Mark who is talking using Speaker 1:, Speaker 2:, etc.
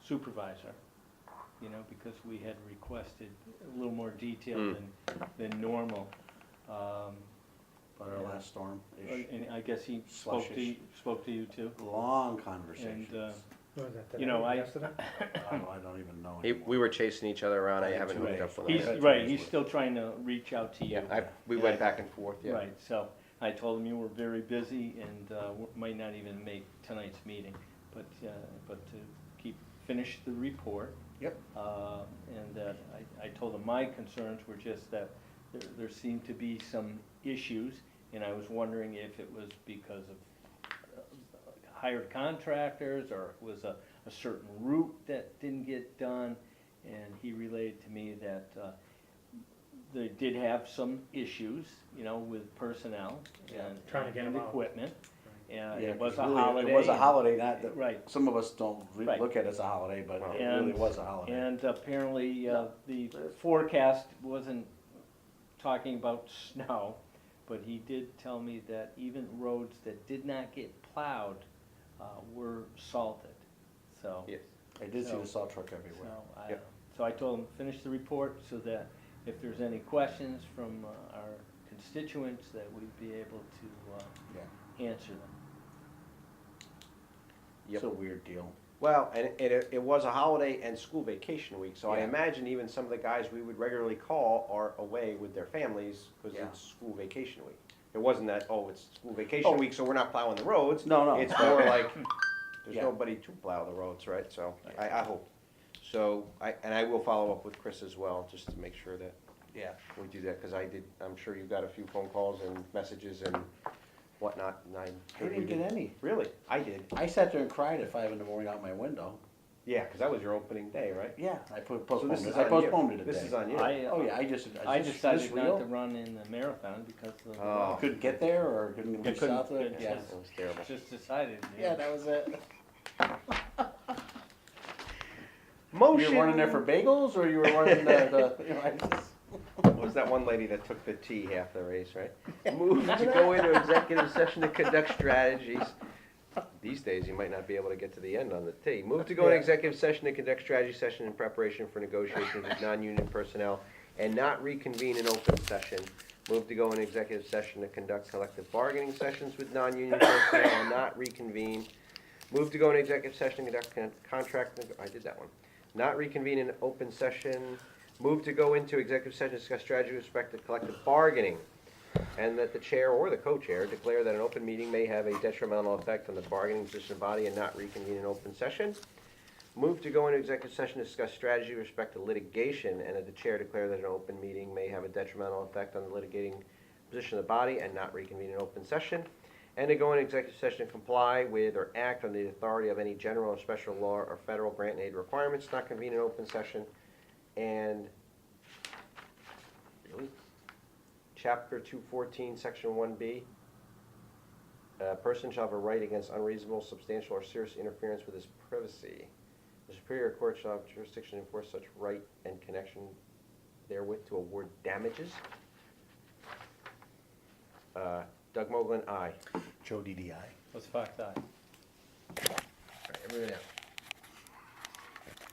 Speaker 1: supervisor, you know, because we had requested a little more detail
Speaker 2: Hmm.
Speaker 1: than, than normal. Um,
Speaker 3: But our last storm-ish,
Speaker 1: And I guess he spoke to, you- spoke to you too?
Speaker 3: long conversations.
Speaker 4: Was that the
Speaker 1: You know, I-
Speaker 4: yesterday?
Speaker 3: I don't, I don't even know
Speaker 2: He,
Speaker 3: anymore.
Speaker 2: we were chasing each other around. I
Speaker 3: Yeah,
Speaker 2: haven't
Speaker 3: two
Speaker 2: hooked up
Speaker 3: days.
Speaker 2: with
Speaker 1: He's,
Speaker 2: him.
Speaker 3: Yeah.
Speaker 1: right, he's still trying to reach out to you.
Speaker 2: Yeah, I, we went back and forth. Yeah.
Speaker 1: Right, so I told him you were very busy and uh, w- might not even make tonight's meeting, but, uh, but to keep, finish the report.
Speaker 3: Yep.
Speaker 1: uh, And that, I, I told him my concerns were just that there, there seemed to be some issues, and I was wondering if it was because of uh, hired contractors, or it was a, a certain route that didn't get done, and he relayed to me that, uh, they did have some issues, you know, with personnel
Speaker 3: Yeah.
Speaker 1: and.
Speaker 4: Trying to get
Speaker 1: and
Speaker 4: 'em out.
Speaker 1: Equipment, and
Speaker 3: Yeah,
Speaker 1: it was a
Speaker 3: 'cause really,
Speaker 1: holiday.
Speaker 3: It Uh, was a holiday, not that,
Speaker 1: Right,
Speaker 3: some of us don't re-
Speaker 1: Right.
Speaker 3: look at it as a holiday, but it really
Speaker 1: And-
Speaker 3: was a holiday.
Speaker 1: and apparently, uh, the
Speaker 3: Yeah.
Speaker 1: forecast wasn't talking about snow, but he did tell me that even roads that did not get plowed, uh, were salted, so.
Speaker 2: Yes.
Speaker 3: I did see
Speaker 1: so-
Speaker 3: the salt truck
Speaker 1: So
Speaker 3: everywhere.
Speaker 1: I,
Speaker 2: Yep.
Speaker 1: so I told him, finish the report so that if there's any questions from uh, our constituents, that we'd be able to,
Speaker 3: Yeah,
Speaker 1: uh, answer them.
Speaker 2: Yep.
Speaker 3: it's a weird deal.
Speaker 2: Well, and, and it, it was a holiday and school vacation week, so I
Speaker 3: Yeah.
Speaker 2: imagine even some of the guys we would regularly call are away with their families because
Speaker 3: Yeah.
Speaker 2: it's school vacation week. It wasn't that, oh, it's school vacation
Speaker 3: Oh.
Speaker 2: week, so we're not plowing the roads.
Speaker 3: No, no.
Speaker 2: It's more like, there's
Speaker 3: Yeah.
Speaker 2: nobody to plow the roads, right? So I, I hope. So I, and I will follow up with Chris as well, just to make sure that
Speaker 3: Yeah.
Speaker 2: we do that, because I did, I'm sure you got a few phone calls and messages and whatnot, and I.
Speaker 3: I didn't get any.
Speaker 2: Really? I did.
Speaker 3: I sat there and cried at five in the morning out my window.
Speaker 2: Yeah, because that was your opening day, right?
Speaker 3: Yeah, I put-
Speaker 2: So
Speaker 3: postponed
Speaker 2: this
Speaker 3: it,
Speaker 2: is
Speaker 3: I
Speaker 2: on you.
Speaker 3: postponed it a
Speaker 2: This is
Speaker 3: day.
Speaker 2: on you.
Speaker 1: I, uh,
Speaker 3: Oh, yeah, I just,
Speaker 1: I
Speaker 3: I just, this
Speaker 1: decided not to
Speaker 3: real,
Speaker 1: run in the marathon because of, the
Speaker 2: Oh.
Speaker 1: weather.
Speaker 3: couldn't get there or couldn't reach
Speaker 1: couldn't
Speaker 3: out to it,
Speaker 1: get
Speaker 3: yeah.
Speaker 1: to
Speaker 2: That was terrible.
Speaker 1: just decided. you
Speaker 3: Yeah,
Speaker 1: know.
Speaker 3: that was it. You
Speaker 2: Motion.
Speaker 3: were running there for bagels or you were running the, the, you know, I just.
Speaker 2: What was that one lady that took the T half the race, right? Move to go into executive session to conduct strategies. These days, you might not be able to get to the end on the T. Move to go into
Speaker 4: Yeah.
Speaker 2: executive session to conduct strategy session in preparation for negotiations with non-union personnel and not reconvene in open session. Move to go into executive session to conduct collective bargaining sessions with non-union personnel and not reconvene. Move to go into executive session to conduct con- contract, neg- I did that one. Not reconvene in open session. Move to go into executive session, to discuss strategy with respect to collective bargaining. And that the chair or the co-chair declare that an open meeting may have a detrimental effect on the bargaining position of the body and not reconvene in open session. Move to go into executive session, to discuss strategy with respect to litigation, and that the chair declare that an open meeting may have a detrimental effect on the litigating position of the body and not reconvene in open session. And to go into executive session to comply with or act on the authority of any general or special law or federal grant and aid requirements, not convene in open session. And really? Chapter two fourteen, section one B. A person shall have a right against unreasonable, substantial, or serious interference with his privacy. The Superior Court shall have jurisdiction to enforce such right and connection therewith to award damages. Uh, Doug Moglen, aye.
Speaker 3: Joe DDI.
Speaker 1: It was Fox Eye.
Speaker 2: All right, everybody out.